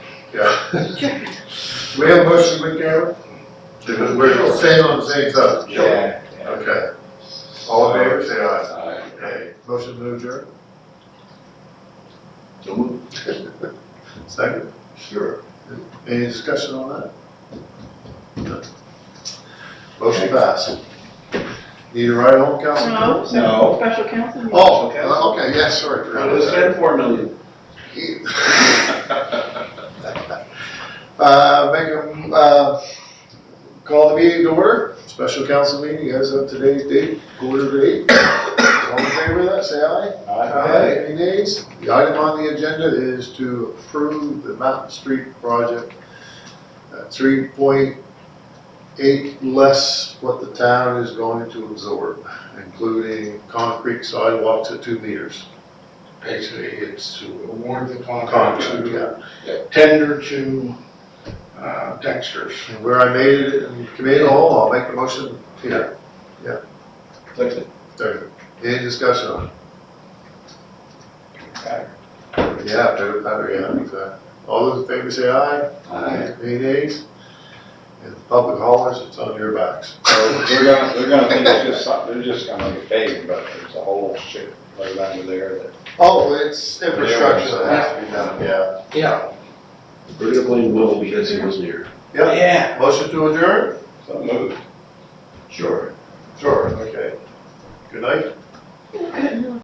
We have a motion with Gary? We're staying on the same side. Yeah. Okay. All in favor, say aye. Uh, Okay. Motion to adjourn? Second? Sure. Any discussion on that? No. Motion passed. Need a ride home, Council? No, No. special counsel. meeting. Oh, okay, yeah, sorry. It was ten, four million. Uh, make a, uh, call the meeting to order, special council meeting, as of today's date, quarter to eight. All in favor of that, say aye. Any nays? The item on the agenda is to approve the Mountain Street project. Three point eight less what the town is going to absorb, including concrete sidewalks at two meters. Basically, it's to award the contract Concrete, to yeah. tender to uh, Dexter's. And where I made it in committee hall, I'll make the motion here. Second. There. Any discussion on it? Yeah, better, better, yeah, exactly. All those in favor say aye. Aye. Any nays? And the public haulers, it's on your backs. So They're gonna, they're gonna think it's just something, they're just gonna make a paving, but there's a whole shit right under there that. Oh, it's infrastructure that has to be done. Yeah. Yeah. We're gonna blame Will because he wasn't here. Yeah, motion to adjourn? So move. Sure. Sure, okay. Good night. Good.